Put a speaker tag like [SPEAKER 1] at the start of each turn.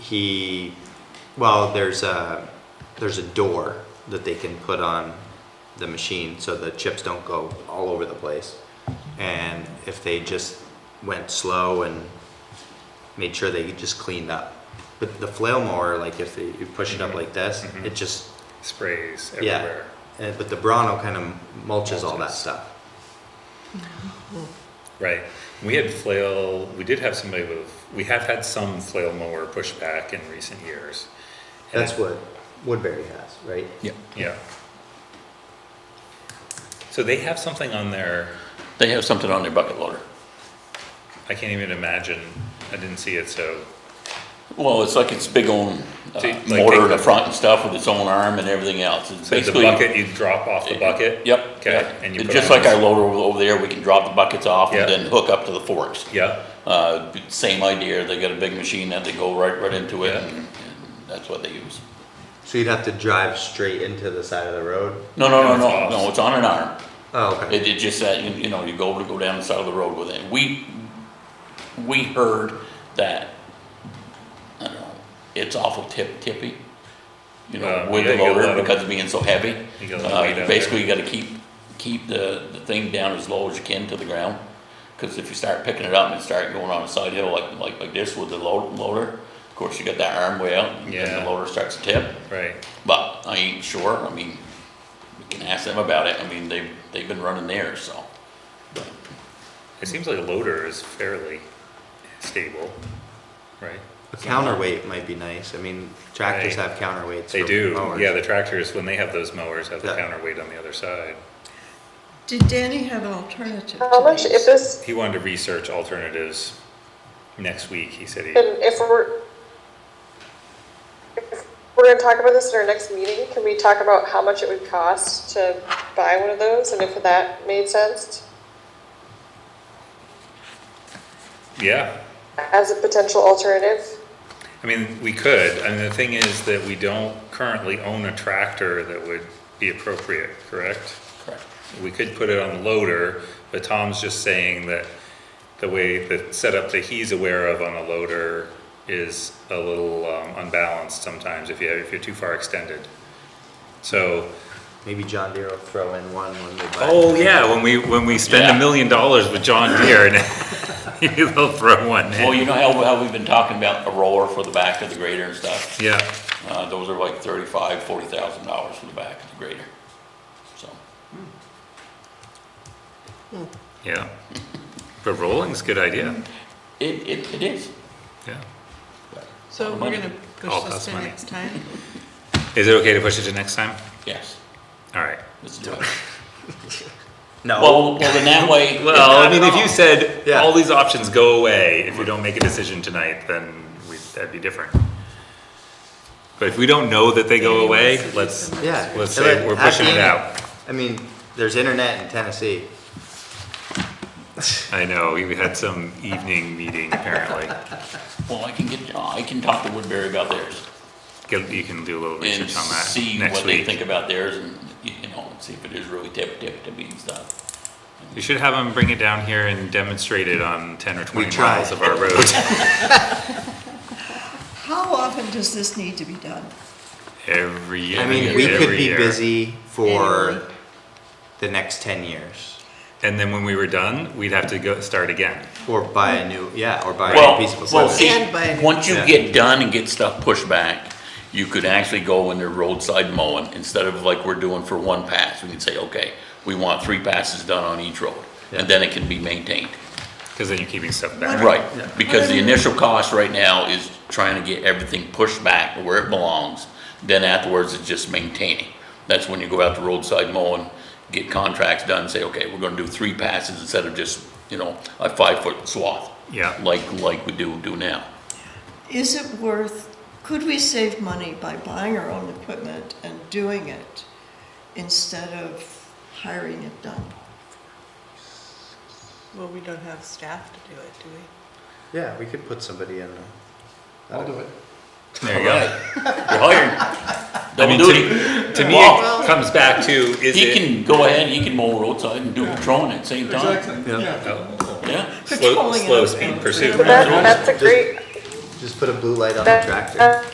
[SPEAKER 1] he, well, there's a, there's a door that they can put on the machine so the chips don't go all over the place. And if they just went slow and made sure they just cleaned up. But the flail mower, like if you you push it up like this,
[SPEAKER 2] Mhm.
[SPEAKER 1] it just,
[SPEAKER 2] sprays
[SPEAKER 1] Yeah.
[SPEAKER 2] everywhere.
[SPEAKER 1] eh, but the Bronto kind of mulches all that
[SPEAKER 2] Mulches.
[SPEAKER 1] stuff.
[SPEAKER 2] Right. We had flail, we did have somebody with, we have had some flail mower pushback in recent years. And
[SPEAKER 1] That's what Woodbury has, right?
[SPEAKER 3] Yeah,
[SPEAKER 2] Yeah. So they have something on their,
[SPEAKER 3] they have something on their bucket loader.
[SPEAKER 2] I can't even imagine, I didn't see it, so,
[SPEAKER 3] Well, it's like its big own uh,
[SPEAKER 2] So you- like
[SPEAKER 3] motor in
[SPEAKER 2] take
[SPEAKER 3] the
[SPEAKER 2] the-
[SPEAKER 3] front and stuff with its own arm and everything else. It's
[SPEAKER 2] so the
[SPEAKER 3] basically.
[SPEAKER 2] bucket, you drop off the bucket?
[SPEAKER 3] Yep.
[SPEAKER 2] Okay, and you
[SPEAKER 3] It's
[SPEAKER 2] put
[SPEAKER 3] Just
[SPEAKER 2] on
[SPEAKER 3] like
[SPEAKER 2] this-
[SPEAKER 3] our loader over- over there, we can drop the buckets off
[SPEAKER 2] Yeah.
[SPEAKER 3] and then hook up to the forks.
[SPEAKER 2] Yeah,
[SPEAKER 3] Uh, same idea, they got a big machine that they go right, right into it
[SPEAKER 2] Yeah.
[SPEAKER 3] and and that's what they use.
[SPEAKER 1] So you'd have to drive straight into the side of the road?
[SPEAKER 3] No, no, no,
[SPEAKER 2] And it's
[SPEAKER 3] no,
[SPEAKER 2] off.
[SPEAKER 3] no, it's on an arm.
[SPEAKER 1] Oh, okay.
[SPEAKER 3] It, it just that, you you know, you go, go down the side of the road with it. We, we heard that, I don't know, it's awful tip, tippy, you know,
[SPEAKER 2] Uh,
[SPEAKER 3] with the
[SPEAKER 2] yeah, you gotta
[SPEAKER 3] loader
[SPEAKER 2] let 'em-
[SPEAKER 3] because of being so heavy.
[SPEAKER 2] You gotta let 'em lay
[SPEAKER 3] Uh,
[SPEAKER 2] down
[SPEAKER 3] Basically, you gotta keep, keep the, the thing down as low as you can to the ground. Cause if you start picking it up and start going on a side hill like, like, like this with the load, loader, of course, you got that arm way out and
[SPEAKER 2] Yeah.
[SPEAKER 3] the loader starts to tip.
[SPEAKER 2] right.
[SPEAKER 3] But I ain't sure, I mean, we can ask them about it, I mean, they've, they've been running theirs, so.
[SPEAKER 2] It seems like a loader is fairly stable, right?
[SPEAKER 1] A counterweight might be nice. I mean, tractors
[SPEAKER 2] Right.
[SPEAKER 1] have counterweights.
[SPEAKER 2] They
[SPEAKER 1] for
[SPEAKER 2] do,
[SPEAKER 1] mowers.
[SPEAKER 2] yeah, the tractors, when they have those mowers, have the
[SPEAKER 1] Yeah.
[SPEAKER 2] counterweight on the other side.
[SPEAKER 4] Did Danny have an alternative
[SPEAKER 5] How
[SPEAKER 4] to
[SPEAKER 5] much, if
[SPEAKER 4] these?
[SPEAKER 5] this,
[SPEAKER 2] He wanted to research alternatives next week, he said he,
[SPEAKER 5] and if we're, if we're gonna talk about this in our next meeting, can we talk about how much it would cost to buy one of those, and if that made sense
[SPEAKER 2] yeah.
[SPEAKER 5] as a potential alternative?
[SPEAKER 2] I mean, we could, I mean, the thing is that we don't currently own a tractor that would be appropriate, correct?
[SPEAKER 3] Correct.
[SPEAKER 2] We could put it on the loader, but Tom's just saying that the way, the setup that he's aware of on a loader is a little um, unbalanced sometimes if you, if you're too far extended. So,
[SPEAKER 1] Maybe John Deere will throw in one when they buy.
[SPEAKER 2] oh yeah, when we, when we spend
[SPEAKER 3] Yeah.
[SPEAKER 2] a million dollars with John Deere, they'll throw one
[SPEAKER 3] Well,
[SPEAKER 2] in.
[SPEAKER 3] you know how, how we've been talking about a roller for the back of the grader and stuff?
[SPEAKER 2] Yeah.
[SPEAKER 3] Uh, those are like thirty-five, forty thousand dollars for the back of the grader, so.
[SPEAKER 2] Yeah, but rolling's a good idea,
[SPEAKER 3] It, it, it is.
[SPEAKER 2] yeah.
[SPEAKER 4] So we're
[SPEAKER 3] Money.
[SPEAKER 4] gonna
[SPEAKER 2] All
[SPEAKER 4] push this
[SPEAKER 2] costs
[SPEAKER 4] to
[SPEAKER 2] money.
[SPEAKER 4] next time?
[SPEAKER 2] Is it okay to push it to next time?
[SPEAKER 3] Yes,
[SPEAKER 2] All right.
[SPEAKER 3] let's do it.
[SPEAKER 1] No.
[SPEAKER 3] Well, well, then that way.
[SPEAKER 2] Well, I mean, if you said,
[SPEAKER 1] Yeah.
[SPEAKER 2] all these options go away, if we don't make a decision tonight, then we, that'd be different. But if we don't know that they go away, let's,
[SPEAKER 1] yeah.
[SPEAKER 2] let's
[SPEAKER 1] and
[SPEAKER 2] say
[SPEAKER 1] then
[SPEAKER 2] we're pushing
[SPEAKER 1] at
[SPEAKER 2] it
[SPEAKER 1] the end-
[SPEAKER 2] out.
[SPEAKER 1] I mean, there's internet in Tennessee.
[SPEAKER 2] I know, we had some evening meeting apparently.
[SPEAKER 3] Well, I can get, I can talk to Woodbury about theirs
[SPEAKER 2] Get- You can do a little
[SPEAKER 3] and
[SPEAKER 2] research on that
[SPEAKER 3] see
[SPEAKER 2] next
[SPEAKER 3] what they
[SPEAKER 2] week.
[SPEAKER 3] think about theirs and, you you know, see if it is really tip, tip, tippy and stuff.
[SPEAKER 2] You should have them bring it down here and demonstrate it on ten or twenty
[SPEAKER 1] tried.
[SPEAKER 2] miles of our road.
[SPEAKER 4] How often does this need to be done?
[SPEAKER 2] Every year.
[SPEAKER 1] I mean, we could
[SPEAKER 2] every
[SPEAKER 1] be
[SPEAKER 2] year.
[SPEAKER 1] busy for
[SPEAKER 4] Annually.
[SPEAKER 1] the next ten years,
[SPEAKER 2] And then when we were done, we'd have to go start again.
[SPEAKER 1] or buy a new yeah, or buy a
[SPEAKER 3] Well,
[SPEAKER 1] new piece of
[SPEAKER 3] well,
[SPEAKER 1] equipment.
[SPEAKER 3] see,
[SPEAKER 4] And by-
[SPEAKER 3] once you
[SPEAKER 1] Yeah.
[SPEAKER 3] get done and get stuff pushed back, you could actually go in the roadside mowing, instead of like we're doing for one pass, we can say, okay, we want three passes done on each road,
[SPEAKER 1] Yeah.
[SPEAKER 3] and then it can be maintained.
[SPEAKER 2] Because then you're keeping stuff back.
[SPEAKER 3] Right,
[SPEAKER 1] Yeah.
[SPEAKER 3] because the initial cost right now is trying to get everything pushed back where it belongs, then afterwards it's just maintaining. That's when you go out to roadside mowing, get contracts done, say, okay, we're gonna do three passes instead of just, you know, a five-foot swath,
[SPEAKER 2] Yeah.
[SPEAKER 3] like, like we do, do now.
[SPEAKER 4] Is it worth, could we save money by buying our own equipment and doing it instead of hiring it done?
[SPEAKER 6] Well, we don't have staff to do it, do we?
[SPEAKER 1] yeah, we could put somebody in. The, I'll do it.
[SPEAKER 2] There you go.
[SPEAKER 3] You're hired. Double
[SPEAKER 2] mean,
[SPEAKER 3] duty.
[SPEAKER 2] To me,
[SPEAKER 3] Well-
[SPEAKER 2] it comes back to, is
[SPEAKER 3] He
[SPEAKER 2] it?
[SPEAKER 3] can go ahead, he can mow roadside and do patrolling at the same time.
[SPEAKER 7] Exactly, yeah.
[SPEAKER 2] Oh,
[SPEAKER 3] Yeah,
[SPEAKER 2] Slow,
[SPEAKER 4] Patrolling
[SPEAKER 2] slow
[SPEAKER 4] and-
[SPEAKER 2] speed
[SPEAKER 4] and-
[SPEAKER 2] pursuit.
[SPEAKER 5] That, that's a great,
[SPEAKER 1] Just put a blue light on the
[SPEAKER 5] That-
[SPEAKER 1] tractor.
[SPEAKER 5] uh,